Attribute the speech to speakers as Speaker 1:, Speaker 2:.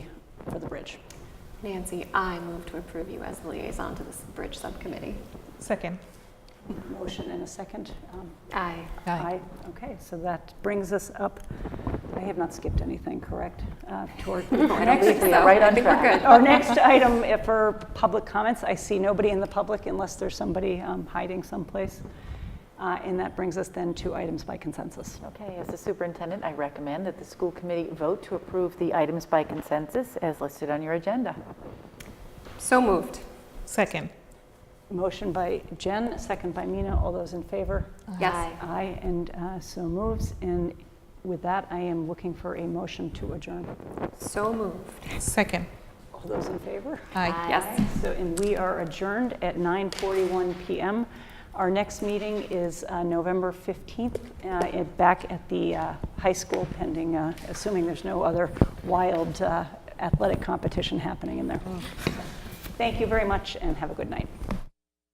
Speaker 1: bridge.
Speaker 2: Nancy, I move to approve you as the liaison to this bridge subcommittee.
Speaker 3: Second.
Speaker 1: Motion and a second. um,
Speaker 2: Aye.
Speaker 1: Aye. Okay, so that brings us up, I have not skipped anything, correct? Uh, Toward
Speaker 2: I don't
Speaker 1: next-
Speaker 2: think so.
Speaker 1: right
Speaker 2: I
Speaker 1: on
Speaker 2: think we're
Speaker 1: track.
Speaker 2: good.
Speaker 1: Our next item uh, for public comments, I see nobody in the public unless there's somebody um, hiding someplace. Uh, And that brings us then to items by consensus.
Speaker 4: Okay, as the superintendent, I recommend that the school committee vote to approve the items by consensus as listed on your agenda.
Speaker 2: So moved.
Speaker 3: Second.
Speaker 1: Motion by Jen, second by Mina. All those in favor?
Speaker 2: Yes.
Speaker 1: Aye, and uh, so moves. And with that, I am looking for a motion to adjourn.
Speaker 2: So moved.
Speaker 3: Second.
Speaker 1: All those in favor?
Speaker 3: Aye.
Speaker 2: Yes.
Speaker 1: So, and we are adjourned at 9:41 PM. Our next meeting is uh, November 15th, uh, at- back at the uh, high school pending, uh, assuming there's no other wild uh, athletic competition happening in there. Thank you very much and have a good night.